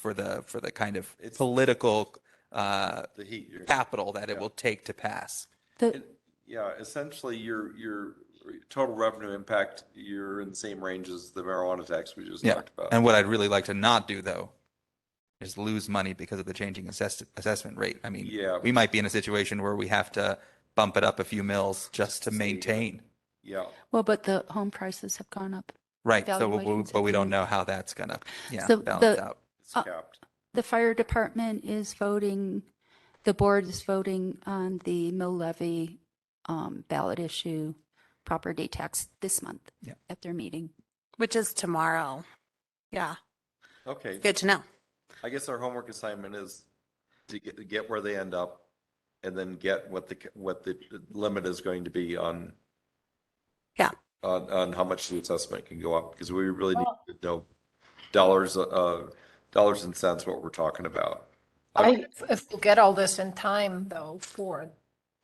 for the, for the kind of political uh, the heat. you're- capital that it will take to pass. The, And, Yeah, essentially, your, your total revenue impact, you're in the same range as the marijuana tax we just Yeah. talked about. And what I'd really like to not do though is lose money because of the changing assess- assessment rate. I mean, Yeah. we might be in a situation where we have to bump it up a few mills just to Save it. maintain. Yeah, well, but the home prices have gone up. Right. So, we- we- Valuations but we have don't gone know how that's gonna, yeah, So balance the- out. it's Uh, capped. The fire department is voting, the board is voting on the mill levy um, ballot issue property tax this month Yeah. at their meeting. Which is tomorrow. Yeah, Okay, good to know. I guess our homework assignment is to get, to get where they end up and then get what the, what the limit is going to be on. Yeah. On, on how much the assessment can go up, because we really need to know dollars, uh, dollars and cents, what we're talking about. I, if we'll get all this in time though, for,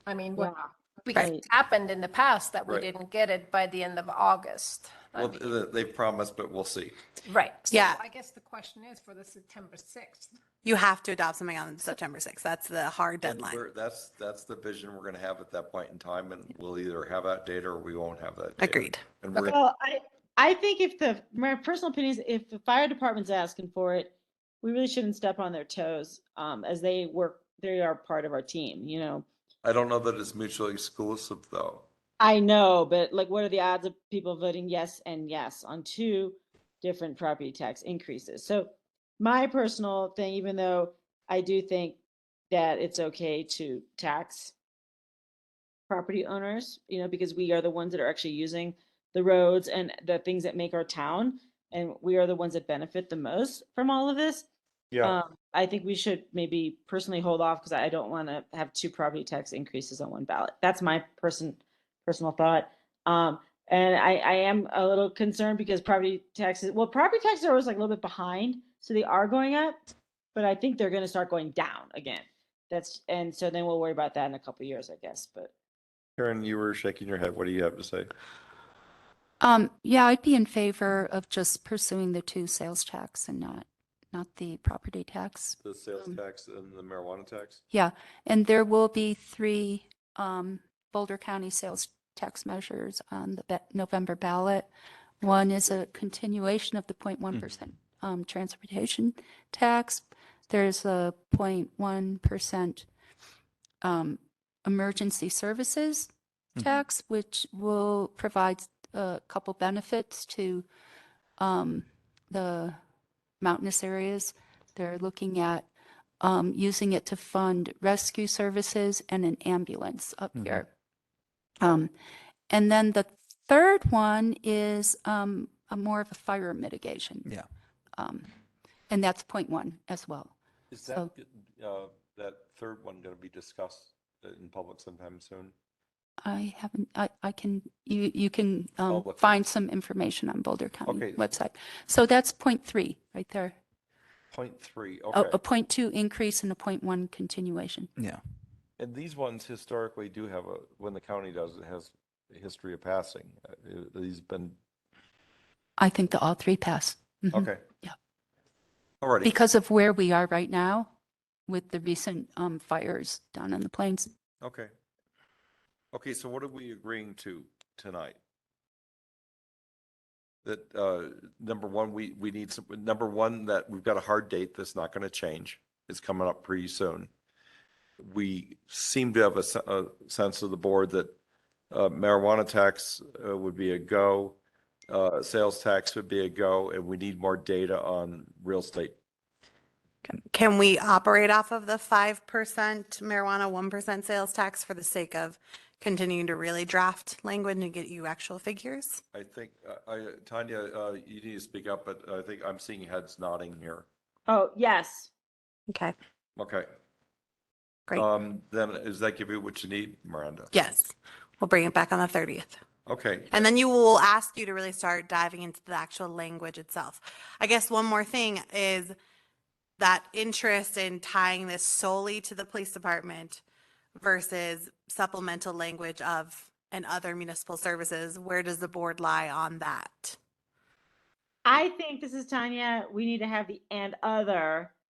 I mean, what, because Right. it happened in the past that we Right. didn't get it by the end of August. I Well, mean, th- they promised, but we'll see. Right. So Yeah. I guess the question is for the September 6th. You have to adopt something on September 6th. That's the hard And deadline. we're- That's, that's the vision we're gonna have at that point in time, and we'll either have that data or we won't have that. data. Agreed. And we're, gonna- Well, I, I think if the, my personal opinion is if the fire department's asking for it, we really shouldn't step on their toes, um, as they work, they are part of our team, you know? I don't know that it's mutually exclusive, though. I know, but like, what are the odds of people voting yes and yes on two different property tax increases? So my personal thing, even though I do think that it's okay to tax property owners, you know, because we are the ones that are actually using the roads and the things that make our town, and we are the ones that benefit the most from all of this. Um, I think we should maybe personally hold off because I don't want to have two property tax increases on one ballot. That's my person, personal thought. Um, and I, I am a little concerned because property taxes, well, property taxes are always like a little bit behind, so they are going up. But I think they're gonna start going down again. That's, and so then we'll worry about that in a couple years, I guess, but. Karen, you were shaking your head. What do you have to say? Um, yeah, I'd be in favor of just pursuing the two sales tax and not, not the property tax. The sales Um, tax and the marijuana tax? Yeah, and there will be three um, Boulder County sales tax measures on the ba- November ballot. One is a continuation of the 0.1% um, transportation tax. There's a 0.1% um, emergency services Mhm. tax, which will provide a couple benefits to um, the mountainous areas. They're looking at um, using it to fund rescue services and an ambulance up Mhm. here. Um, and then the third one is um, a more of a fire mitigation. Yeah. Um, and that's point one as well. Is so- that, uh, that third one going to be discussed uh, in public sometime soon? I haven't, I, I can, you, you can um, look. find some information on Boulder County Okay. website. So that's point three right there. Point three, A, okay. a point two increase and a point one continuation. Yeah. And these ones historically do have a, when the county does, it has a history of passing. Uh, it- These been, I think the all three pass. Mhm. okay. Yeah. All righty. Because of where we are right now with the recent um, fires down in the plains. Okay. Okay, so what are we agreeing to tonight? That, uh, number one, we, we need some, number one, that we've got a hard date that's not going to change. It's coming up pretty soon. We seem to have a, se- a sense of the board that uh, marijuana tax uh, would be a go, uh, sales tax would be a go, and we need more data on real estate. Can- Can we operate off of the 5% marijuana, 1% sales tax for the sake of continuing to really draft language and get you actual figures? I think, uh, I, Tanya, uh, you need to speak up, but I think I'm seeing heads nodding here. Oh, yes, Okay, Okay. Great. Um, then does that give you what you need, Miranda? yes, we'll bring it back on the 30th. Okay, And then you will ask you to really start diving into the actual language itself. I guess one more thing is that interest in tying this solely to the police department versus supplemental language of and other municipal services, where does the board lie on that? I think this is Tanya. We need to have the and other